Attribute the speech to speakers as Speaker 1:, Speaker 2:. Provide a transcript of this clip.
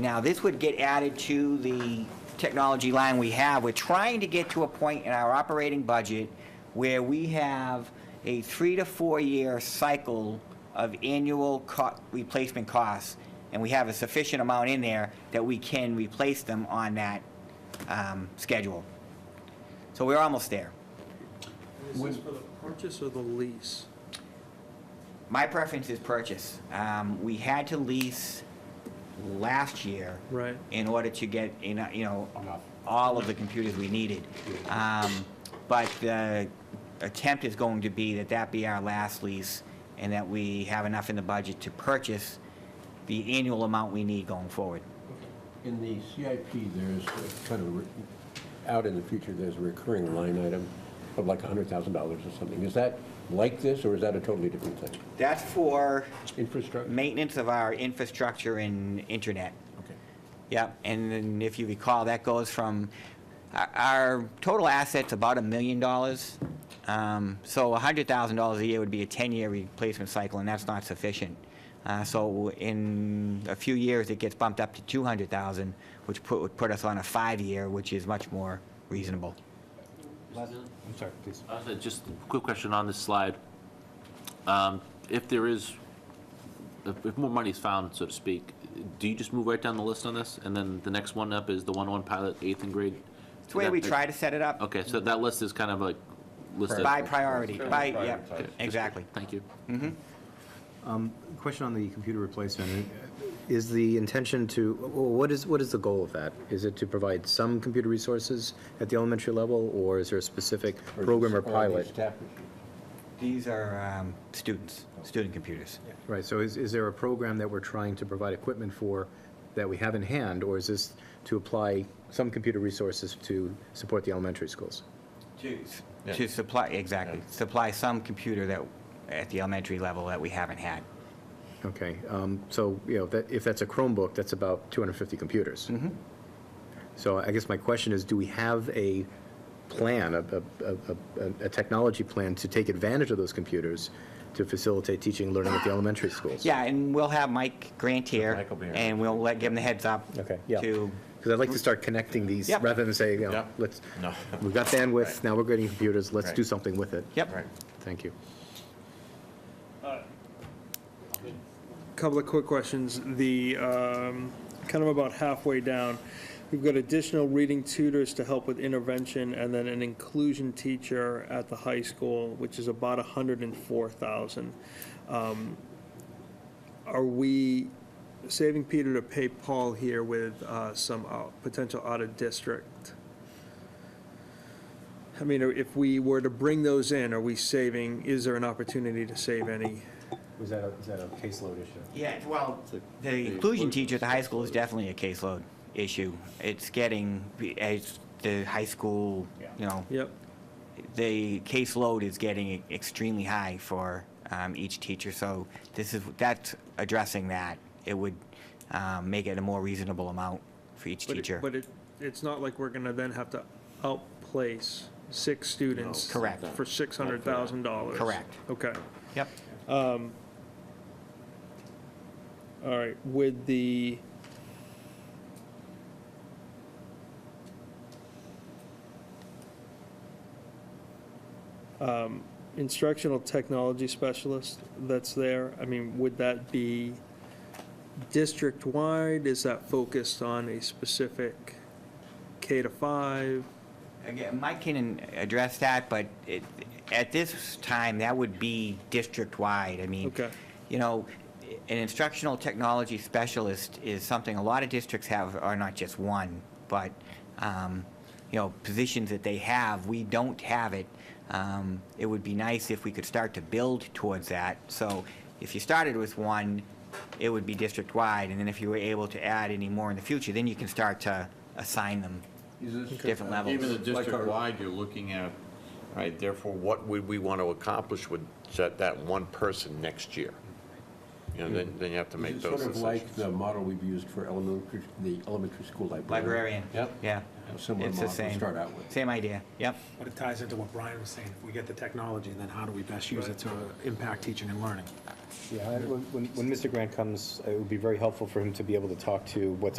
Speaker 1: Now, this would get added to the technology line we have. We're trying to get to a point in our operating budget where we have a three to four-year cycle of annual co- replacement costs, and we have a sufficient amount in there that we can replace them on that um, schedule. So we're almost there.
Speaker 2: Is this for the purchase or the lease?
Speaker 1: My preference is purchase. Um, We had to lease last year.
Speaker 2: Right.
Speaker 1: in order to get, eno- you know, all of the computers we needed. Um, But the attempt is going to be that that be our last lease, and that we have enough in the budget to purchase the annual amount we need going forward.
Speaker 3: In the CIP, there's a kind of, re- out in the future, there's a recurring line item of like $100,000 or something. Is that like this, or is that a totally different thing?
Speaker 1: That's for
Speaker 3: Infrastructure?
Speaker 1: maintenance of our infrastructure and internet.
Speaker 3: Okay.
Speaker 1: Yep, and then if you recall, that goes from, our- our total asset's about a million dollars. Um, So $100,000 a year would be a 10-year replacement cycle, and that's not sufficient. Uh, So in a few years, it gets bumped up to 200,000, which put- would put us on a five-year, which is much more reasonable.
Speaker 4: I'm sorry, please.
Speaker 5: Uh, so Just a quick question on this slide. Um, If there is, if if more money is found, so to speak, do you just move right down the list on this? And then the next one up is the one-on-one pilot, eighth and grade?
Speaker 1: It's the way we try to set it up,
Speaker 5: Okay, so that list is kind of like listed.
Speaker 1: by priority, by,
Speaker 5: Okay,
Speaker 1: yep,
Speaker 5: just-
Speaker 1: exactly.
Speaker 5: Thank you.
Speaker 4: Question on the computer replacement. Is the intention to, wh- what is, what is the goal of that? Is it to provide some computer resources at the elementary level, or is there a specific
Speaker 3: Or
Speaker 4: program or
Speaker 3: just- the
Speaker 4: pilot?
Speaker 3: staff issue?
Speaker 1: These are um, students, student computers.
Speaker 4: Right, so is, is there a program that we're trying to provide equipment for that we have in hand, or is this to apply some computer resources to support the elementary schools?
Speaker 3: Yeah.
Speaker 1: To supply, exactly, supply some computer that, at the elementary level that we haven't had.
Speaker 4: Okay, um, so, you know, that, if that's a Chromebook, that's about 250 computers.
Speaker 3: Mm-hmm.
Speaker 4: So I guess my question is, do we have a plan, a, a- a, a, a technology plan to take advantage of those computers to facilitate teaching and learning at the elementary schools?
Speaker 1: Yeah, and we'll have Mike Grant here,
Speaker 3: Mike will be here.
Speaker 1: and we'll let, give him the heads up.
Speaker 4: Okay, yeah.
Speaker 1: To,
Speaker 4: Because I'd like to start connecting these,
Speaker 1: Yep.
Speaker 4: rather than say, you know,
Speaker 3: Yeah.
Speaker 4: let's, we've got bandwidth, now we're getting computers, let's do
Speaker 3: Right.
Speaker 4: something with it.
Speaker 1: yep,
Speaker 4: Thank you.
Speaker 2: Couple of quick questions. The, um, kind of about halfway down, we've got additional reading tutors to help with intervention and then an inclusion teacher at the high school, which is about 104,000. Um, Are we saving Peter to pay Paul here with uh, some out- potential out-of-district? I mean, if we were to bring those in, are we saving, is there an opportunity to save any?
Speaker 4: Was that a, is that a caseload issue?
Speaker 1: yeah, well, the inclusion teacher at the high school is definitely a caseload issue. It's getting, as the high school, you know,
Speaker 2: Yep.
Speaker 1: the caseload is getting e, extremely high for um, each teacher, so this is, that's addressing that. It would um, make it a more reasonable amount for each
Speaker 2: But it-
Speaker 1: teacher.
Speaker 2: But it, it's not like we're gonna then have to outplace six students.
Speaker 1: Correct.
Speaker 2: For six hundred thousand dollars.
Speaker 1: Correct.
Speaker 2: Okay,
Speaker 1: Yep,
Speaker 2: all right, with the. Um, instructional technology specialist that's there, I mean, would that be district-wide? Is that focused on a specific K to five?
Speaker 1: again, Mike can address that, but it, at this time, that would be district-wide. I mean,
Speaker 2: Okay.
Speaker 1: you know, an instructional technology specialist is something a lot of districts have, are not just one, but, um, you know, positions that they have, we don't have it. Um, It would be nice if we could start to build towards that. So if you started with one, it would be district-wide, and then if you were able to add any more in the future, then you can start to assign them
Speaker 6: Is this-
Speaker 1: different levels.
Speaker 6: Even the
Speaker 3: Like our-
Speaker 6: district-wide, you're looking at, all right, therefore, what would we want to accomplish with that, that one person next year? You know, then, then you have to make
Speaker 3: Is it
Speaker 6: those
Speaker 3: sort of like
Speaker 6: decisions.
Speaker 3: the model we've used for elementary, the elementary school librarian?
Speaker 1: Librarian.
Speaker 3: Yep.
Speaker 1: Yeah.
Speaker 3: A similar
Speaker 1: It's the
Speaker 3: model to
Speaker 1: same.
Speaker 3: start out with.
Speaker 1: Same idea, yep.
Speaker 7: But it ties into what Brian was saying, if we get the technology, then how do we best use it to impact teaching and learning?
Speaker 4: Yeah, I- when, when when Mr. Grant comes, it would be very helpful for him to be able to talk to what's